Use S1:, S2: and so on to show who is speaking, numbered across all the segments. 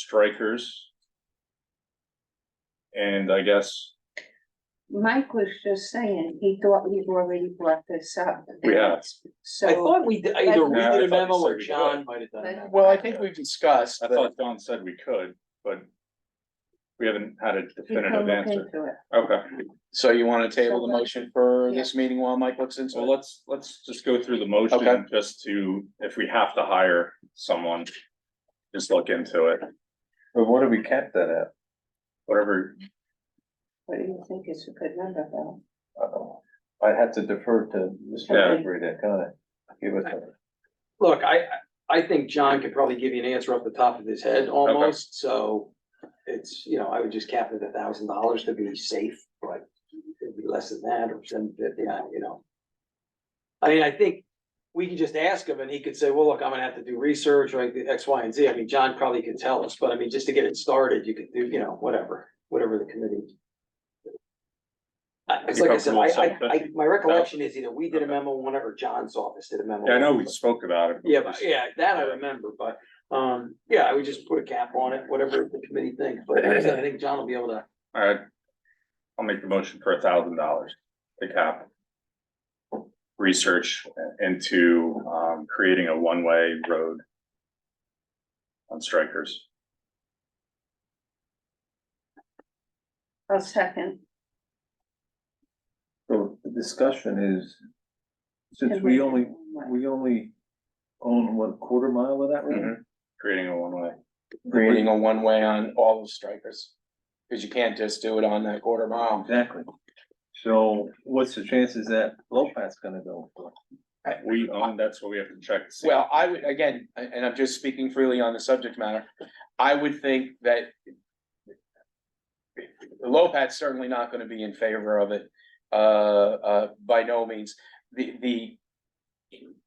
S1: strikers. And I guess
S2: Mike was just saying, he thought we've already brought this up.
S1: We have.
S3: I
S2: So,
S3: thought we did, either we
S1: Yeah, I
S3: did
S1: thought you
S3: a memo
S1: said
S3: or
S1: we did.
S3: John might have done a
S2: But-
S3: memo.
S4: Well, I think we've discussed
S1: I
S4: that,
S1: thought Don said we could, but we haven't had a
S2: you can
S1: definitive
S2: look
S1: answer.
S2: into it.
S1: Okay,
S4: so you wanna table the
S2: So, uh,
S4: motion for this meeting while Mike looks into
S1: so
S4: it?
S1: let's, let's just go through the motion
S4: Okay.
S1: just to, if we have to hire someone, just look into it,
S5: But what do we cap that at?
S1: whatever.
S2: What do you think is a good number though?
S5: I don't know. I'd have to defer to
S1: Yeah.
S5: Mr. Avery to kind of give us a.
S3: Look, I, I- I think John could probably give you an answer off the top of his head almost, so it's, you know, I would just cap it at a thousand dollars to be safe, but it'd be less than that or seven fifty, you know. I mean, I think we could just ask him and he could say, well, look, I'm gonna have to do research or X, Y, and Z. I mean, John probably could tell us, but I mean, just to get it started, you could do, you know, whatever, whatever the committee. I- It's like I said, I, I, I, my recollection is either we did a memo, one or John's office did a memo.
S1: Yeah, I know we spoke about it. but
S3: Yeah,
S1: just-
S3: but yeah, that I remember, but, um, yeah, I would just put a cap on it, whatever the committee thinks, but like I said, I think John will be able to.
S1: All right, I'll make the motion for a thousand dollars to cap. Research into um creating a one-way road. On strikers,
S2: I'll second.
S5: So the discussion is, since we only, we only own what, quarter mile of that road?
S1: creating a one-way,
S4: Creating a one-way on all the strikers, cause you can't just do it on that quarter mile.
S5: Exactly. So what's the chances that Lopat's gonna go?
S1: we own, that's what we have to check. to see.
S4: Well, I would, again, a- and I'm just speaking freely on the subject matter, I would think that. Lopat's certainly not gonna be in favor of it, uh, uh, by no means, the, the.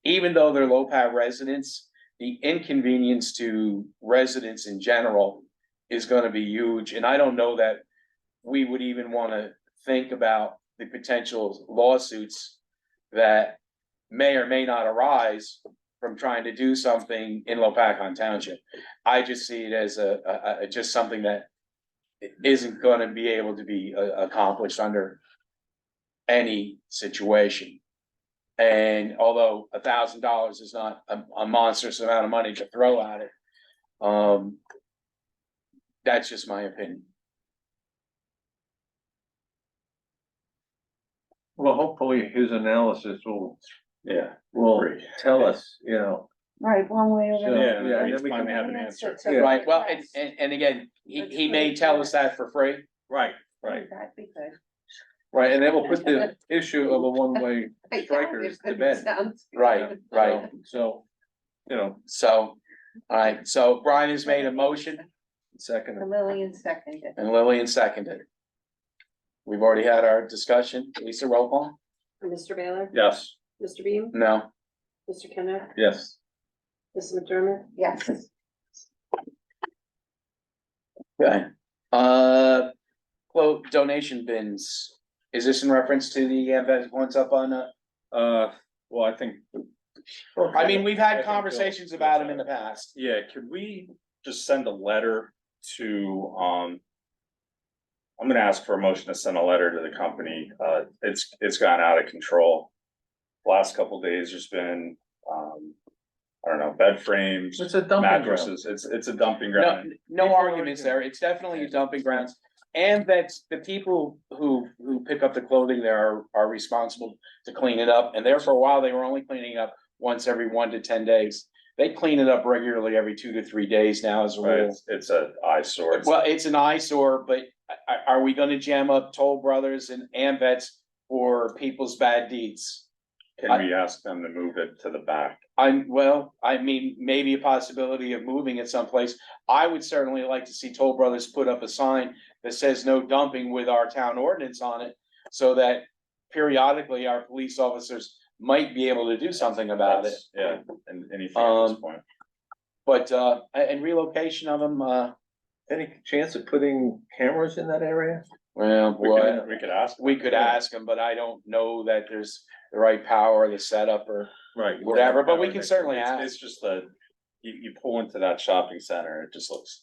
S4: Even though they're Lopat residents, the inconvenience to residents in general is gonna be huge, and I don't know that. We would even wanna think about the potential lawsuits that may or may not arise from trying to do something in Lopakon Township. I just see it as a, a, a- just something that isn't gonna be able to be uh, accomplished under any situation. And although a thousand dollars is not a, a monstrous amount of money to throw at it, um, that's just my opinion.
S5: Well, hopefully his analysis will,
S1: Yeah.
S5: will
S1: Great.
S5: tell us, you know.
S2: Right, one way or
S5: So,
S2: another.
S1: Yeah,
S5: yeah,
S1: we
S5: then we
S1: finally
S5: can-
S1: have an
S2: That's
S1: answer.
S2: it, so
S5: Yeah.
S4: Right, well, and,
S2: that's-
S4: and, and again, he,
S2: But
S4: he
S2: you
S4: may
S2: can't
S4: tell
S2: do
S4: us
S2: that.
S4: that for free,
S1: Right, right.
S2: That'd be good.
S5: Right, and that will put the issue of a one-way, Strikers to bed.
S2: Sounds good.
S4: Right, right.
S5: so, you know,
S4: so, alright, so Brian has made a motion.
S5: second.
S2: Lillian seconded.
S4: And Lillian seconded. We've already had our discussion. Lisa, roll call?
S6: Mr. Baylor?
S1: Yes,
S6: Mr. Beam?
S4: No.
S6: Mr. Kenneth?
S5: Yes.
S6: Mrs. McDermott?
S2: Yes.
S4: Okay. Uh, quote, donation bins. Is this in reference to the event ones up on, uh,
S1: uh, well, I think.
S4: I mean, we've had conversations about them in the past.
S1: Yeah, could we just send a letter to, um. I'm gonna ask for a motion to send a letter to the company, uh, it's, it's gone out of control. Last couple days, there's been, um, I don't know, bed frames,
S5: It's a dumping ground.
S1: mattresses, it's, it's a dumping
S4: No,
S1: ground.
S4: no arguments there. It's definitely a dumping grounds. And that the people who, who pick up the clothing there are, are responsible to clean it up. And there for a while, they were only cleaning up once every one to ten days. They clean it up regularly every two to three days now as a
S1: Right,
S4: rule.
S1: it's, it's a eyesore. It's-
S4: Well, it's an eyesore, but are, are we gonna jam up Toll Brothers and Ambets for people's bad deeds?
S1: Can we ask them to move it to the back?
S4: I'm, well, I mean, maybe a possibility of moving it someplace. I would certainly like to see Toll Brothers put up a sign that says no dumping with our town ordinance on it. So that periodically our police officers might be able to do something about it.
S1: That's- Yeah, and anything at this
S4: Um,
S1: point.
S4: But, uh, a- and relocation of them, uh,
S5: Any chance of putting cameras in that area?
S4: well,
S1: We
S4: boy.
S1: could, we could ask.
S4: we could ask them, but I don't know that there's the right power, the setup or.
S5: Right.
S4: Whatever, but we can certainly
S1: It's-
S4: ask.
S1: It's just the, you, you pull into that shopping center, it just looks